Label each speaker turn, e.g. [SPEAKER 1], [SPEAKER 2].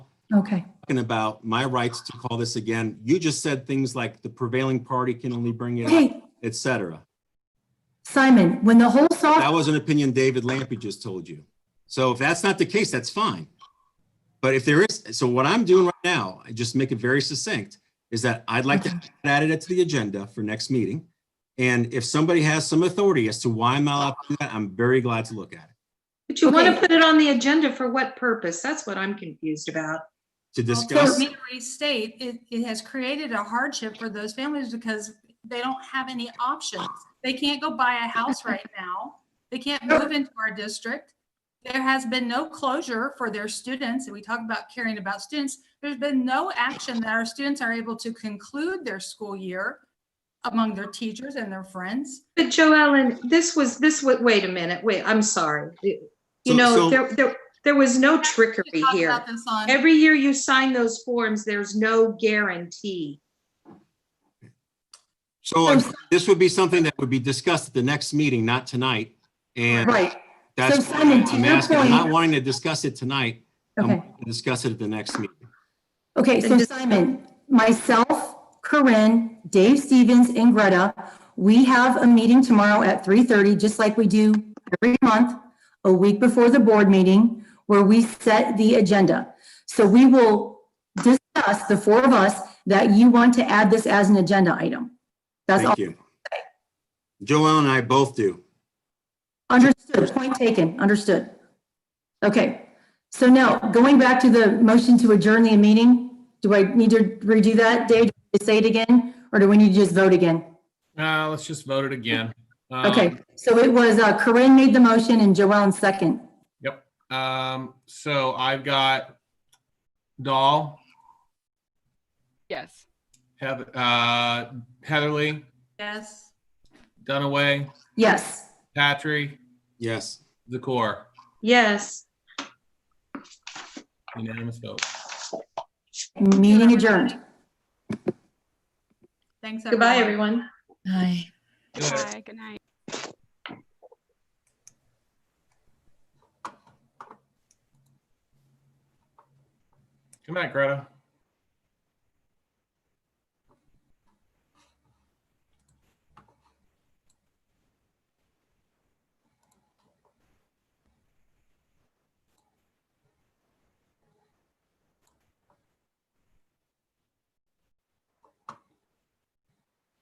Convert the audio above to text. [SPEAKER 1] Okay,
[SPEAKER 2] talking about my rights to call this again. You just said things like the prevailing party can only bring it up,
[SPEAKER 1] hey,
[SPEAKER 2] et cetera.
[SPEAKER 1] Simon, when the whole soft,
[SPEAKER 2] That was an opinion David Lampy just told you. So if that's not the case, that's fine. But if there is, so what I'm doing right now, I just make it very succinct, is that I'd like to add it to the agenda for next meeting. And if somebody has some authority as to why I'm not allowed to do that, I'm very glad to look at it,
[SPEAKER 3] But you want
[SPEAKER 1] Okay.
[SPEAKER 3] to put it on the agenda for what purpose? That's what I'm confused about.
[SPEAKER 2] to
[SPEAKER 4] Well,
[SPEAKER 2] discuss.
[SPEAKER 4] Mary State, it, it has created a hardship for those families because they don't have any options. They can't go buy a house right now. They can't move into our district. There has been no closure for their students, and we talk about caring about students. There's been no action that our students are able to conclude their school year among their teachers and their friends.
[SPEAKER 3] But Joellen, this was, this, wa- wait a minute, wait, I'm sorry. It-
[SPEAKER 2] So-
[SPEAKER 3] You
[SPEAKER 2] so-
[SPEAKER 3] know, there, there, there was no
[SPEAKER 4] We
[SPEAKER 3] trickery
[SPEAKER 4] talked
[SPEAKER 3] here.
[SPEAKER 4] about this on-
[SPEAKER 3] Every year you sign those forms, there's no guarantee.
[SPEAKER 2] So this would be something that would be discussed at the next meeting, not tonight. And
[SPEAKER 1] right,
[SPEAKER 2] That's,
[SPEAKER 1] So, Simon, to
[SPEAKER 2] I'm
[SPEAKER 1] your
[SPEAKER 2] asking, I'm not
[SPEAKER 1] point-
[SPEAKER 2] wanting to discuss it tonight. I'm
[SPEAKER 1] okay.
[SPEAKER 2] wanting to discuss it at the next meeting.
[SPEAKER 1] Okay, so Simon, myself, Corinne, Dave Stevens, and Greta, we have a meeting tomorrow at 3:30, just like we do every month, a week before the board meeting, where we set the agenda. So we will discuss, the four of us, that you want to add this as an agenda item. That's all,
[SPEAKER 2] Thank you. Joelle and I both do.
[SPEAKER 1] understood, point taken, understood. Okay, so now, going back to the motion to adjourn the meeting, do I need to redo that, Dave? Do I Say it again, or do we need to just vote again?
[SPEAKER 5] Uh, let's just vote it again. Um,
[SPEAKER 1] Okay, so it was uh, Corinne made the motion and Joellen second.
[SPEAKER 5] Um, so I've got Dahl,
[SPEAKER 6] Yes.
[SPEAKER 5] Heather, uh, Heatherly,
[SPEAKER 4] Yes.
[SPEAKER 5] Dunaway,
[SPEAKER 1] Yes.
[SPEAKER 5] Patrick,
[SPEAKER 2] Yes.
[SPEAKER 5] Zakor,
[SPEAKER 3] Yes.
[SPEAKER 5] unanimous vote.
[SPEAKER 1] Meeting adjourned.
[SPEAKER 4] Thanks.
[SPEAKER 3] Goodbye, everyone.
[SPEAKER 7] Aye.
[SPEAKER 5] Good night.
[SPEAKER 6] Bye. Good night.
[SPEAKER 5] Good night, Greta.